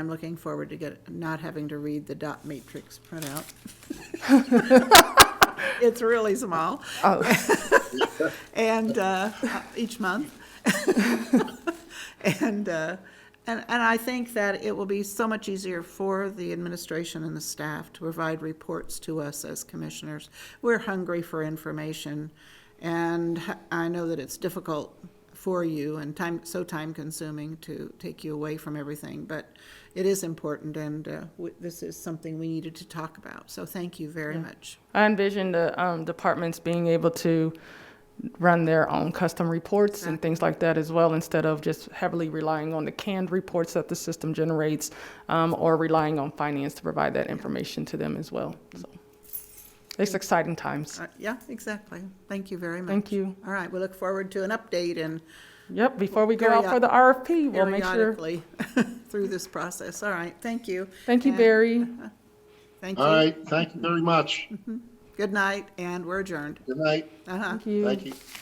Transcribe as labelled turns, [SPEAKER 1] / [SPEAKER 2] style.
[SPEAKER 1] I'm looking forward to get, not having to read the dot matrix printout. It's really small. And, uh, each month. And, uh, and, and I think that it will be so much easier for the administration and the staff to provide reports to us as commissioners. We're hungry for information, and I know that it's difficult for you and time, so time-consuming to take you away from everything, but it is important, and uh, w- this is something we needed to talk about. So thank you very much.
[SPEAKER 2] I envision the um, departments being able to run their own custom reports and things like that as well, instead of just heavily relying on the canned reports that the system generates um, or relying on finance to provide that information to them as well. So it's exciting times.
[SPEAKER 1] Uh, Yeah, exactly. Thank you very much.
[SPEAKER 2] Thank you.
[SPEAKER 1] All right, we look forward to an update and
[SPEAKER 2] Yep, before we go out for the RFP, we'll make sure.
[SPEAKER 1] periodically through this process. All right, thank you.
[SPEAKER 2] Thank you,
[SPEAKER 1] And
[SPEAKER 2] Barry.
[SPEAKER 1] Thank
[SPEAKER 3] All
[SPEAKER 1] you.
[SPEAKER 3] right, thank you very much.
[SPEAKER 1] Good night, and we're adjourned.
[SPEAKER 3] Good night,
[SPEAKER 1] Uh-huh.
[SPEAKER 2] Thank you.
[SPEAKER 3] thank you.